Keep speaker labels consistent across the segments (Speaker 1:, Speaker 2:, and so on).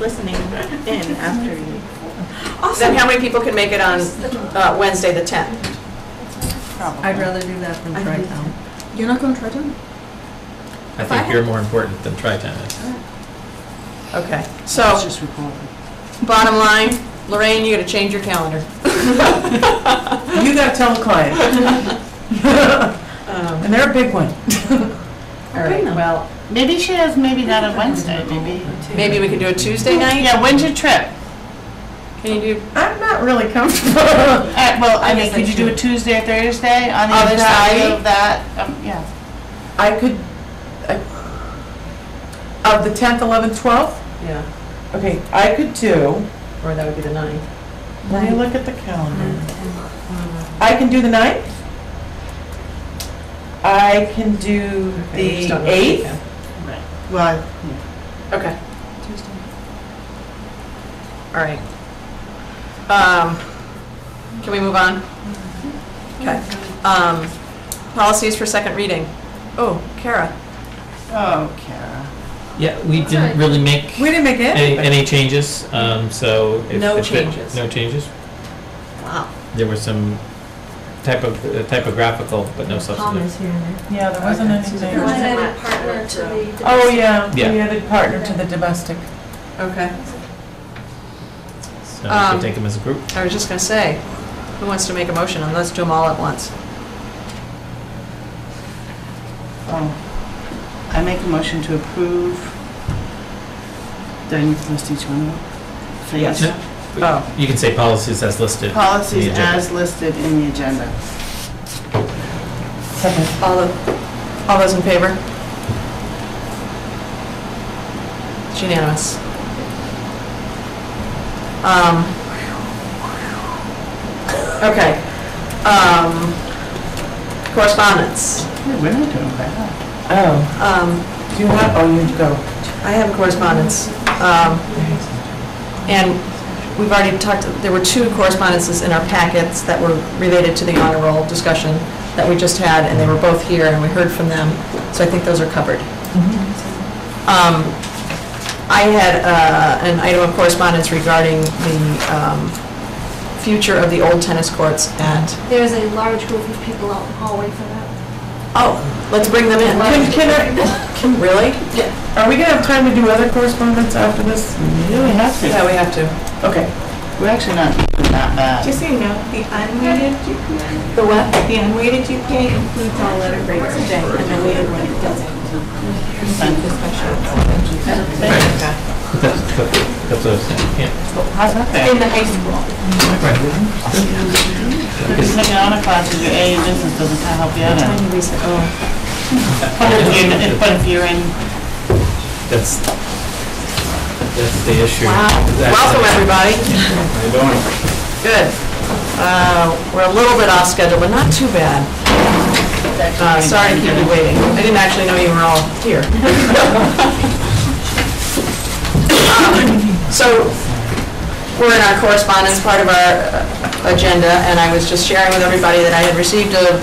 Speaker 1: listening in after you.
Speaker 2: Then how many people can make it on uh, Wednesday, the 10th?
Speaker 3: I'd rather do that than try town.
Speaker 1: You're not going to try to?
Speaker 4: I think you're more important than Tri-Town is.
Speaker 2: Okay, so,
Speaker 5: Oh.
Speaker 2: bottom line, Lorraine, you gotta change your calendar.
Speaker 6: You gotta tell the client,
Speaker 2: Um,
Speaker 6: and they're a big one.
Speaker 2: All right, well,
Speaker 5: Maybe she has maybe not a Wednesday, maybe.
Speaker 2: maybe we can do a Tuesday night?
Speaker 5: Yeah, when's your trip?
Speaker 2: Can you do
Speaker 6: I'm not really comfortable.
Speaker 5: Uh, well, I mean,
Speaker 3: guess
Speaker 5: could
Speaker 3: I
Speaker 5: you do a
Speaker 3: should.
Speaker 5: Tuesday or Thursday on the
Speaker 2: Of
Speaker 5: other
Speaker 2: that
Speaker 5: side
Speaker 2: week?
Speaker 5: of that? Um, yeah.
Speaker 6: I could, I- of the 10th, 11th, 12th?
Speaker 2: Yeah,
Speaker 6: Okay, I could do,
Speaker 2: or that would be the ninth.
Speaker 6: let me look at the calendar. I can do the 9th. I can do the 8th.
Speaker 5: Mm-hmm. Well,
Speaker 2: Okay. All right. Um, Can we move on?
Speaker 6: Mm-hmm.
Speaker 2: Okay. Um, Policies for second reading. Oh, Kara.
Speaker 5: oh, Kara.
Speaker 4: Yeah, we didn't really make
Speaker 6: We didn't make it?
Speaker 4: any, any changes, um, so. if-
Speaker 2: No
Speaker 4: if it-
Speaker 2: changes.
Speaker 4: No changes.
Speaker 2: Wow.
Speaker 4: There were some type of, uh, typographical, but no substantive.
Speaker 3: Thomas here and there.
Speaker 6: Yeah, there wasn't
Speaker 7: Your
Speaker 6: anything.
Speaker 7: added partner to the.
Speaker 6: Oh, yeah, we
Speaker 4: Yeah.
Speaker 6: added partner to the domestic.
Speaker 2: Okay.
Speaker 4: So we
Speaker 2: Um,
Speaker 4: can take them as a group.
Speaker 2: I was just going to say, who wants to make a motion? And let's do them all at once.
Speaker 5: Oh. I make a motion to approve. Do I need to list each one of them? Please.
Speaker 4: No,
Speaker 5: Oh.
Speaker 4: You can say policies as listed.
Speaker 5: Policies
Speaker 4: The agenda.
Speaker 5: as listed in the agenda.
Speaker 2: All of, all those in favor? It's unanimous. Um, Okay. Um, Correspondence.
Speaker 5: Hey, We're not doing bad.
Speaker 6: Oh,
Speaker 2: Um,
Speaker 6: do you want, oh, you go.
Speaker 2: I have correspondence. Um, And we've already talked, there were two correspondences in our packets that were related to the honor roll discussion that we just had, and they were both here, and we heard from them, so I think those are covered. Um, I had uh, an item of correspondence regarding the um, future of the old tennis courts at,
Speaker 7: There is a large group of people out in the hallway for that.
Speaker 2: oh, let's bring them in.
Speaker 6: Can, can I,
Speaker 2: Can- Really?
Speaker 6: Are we gonna have time to do other correspondence after this?
Speaker 5: Yeah, we have
Speaker 2: Yeah,
Speaker 5: to.
Speaker 2: we have to.
Speaker 6: Okay.
Speaker 5: We're actually not doing that bad.
Speaker 1: Just so you know, the unweighted GPA,
Speaker 2: The what?
Speaker 1: the unweighted GPA includes all letter grades today, and the weighted one it doesn't.
Speaker 4: That's, that's what I was saying, yeah.
Speaker 5: How's that fair?
Speaker 1: In the high school.
Speaker 5: Just taking on a class with your A in business doesn't help you out any.
Speaker 2: Tiny Lisa, oh.
Speaker 5: But if you're, but if you're in
Speaker 4: That's, that's the issue.
Speaker 2: Wow.
Speaker 4: That's-
Speaker 2: Welcome, everybody. How you doing? Good. Uh, We're a little bit off schedule, but not too bad. Uh, Sorry to keep you waiting. I didn't actually know you were all here. Um, So we're in our correspondence part of our uh, agenda, and I was just sharing with everybody that I had received a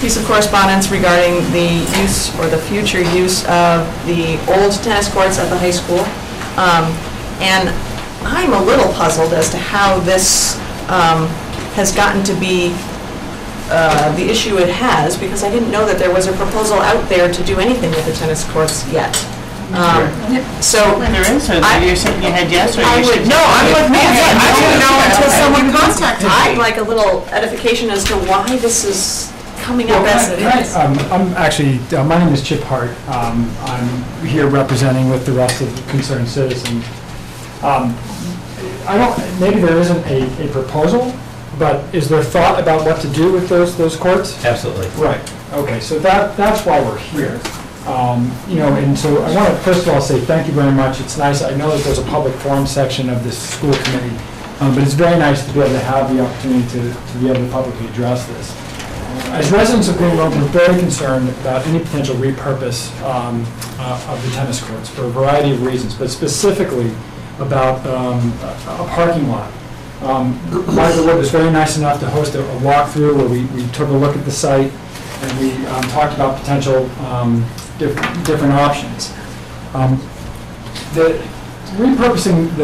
Speaker 2: piece of correspondence regarding the use or the future use of the old tennis courts at the high school. Um, And I'm a little puzzled as to how this um, has gotten to be uh, the issue it has, because I didn't know that there was a proposal out there to do anything with the tennis courts yet. Um, So
Speaker 5: There is, or
Speaker 2: I-
Speaker 5: you're shaking your head yes, or
Speaker 2: I
Speaker 5: you
Speaker 2: would,
Speaker 5: should.
Speaker 2: no, I'm with Nancy. I didn't know until someone
Speaker 6: contacted
Speaker 2: I'd like a little edification as to why this is coming up as it is.
Speaker 8: Um, I'm actually, uh, my name is Chip Hart. Um, I'm here representing with the rest of the concerned citizens. Um, I don't, maybe there isn't a, a proposal, but is there thought about what to do with those, those courts?
Speaker 4: Absolutely.
Speaker 8: Right, okay, so that, that's why we're here. Um, You know, and so I want to first of all say thank you very much. It's nice, I know that there's a public forum section of this school committee, um, but it's very nice to be able to have the opportunity to, to be able to publicly address this. As residents of Green Road, we're very concerned about any potential repurpose um, uh, of the tennis courts for a variety of reasons, but specifically about um, a a parking lot. Um, Liza Wood was very nice enough to host a a walkthrough where we we took a look at the site and we um, talked about potential um, diff- different options. Um, The repurposing the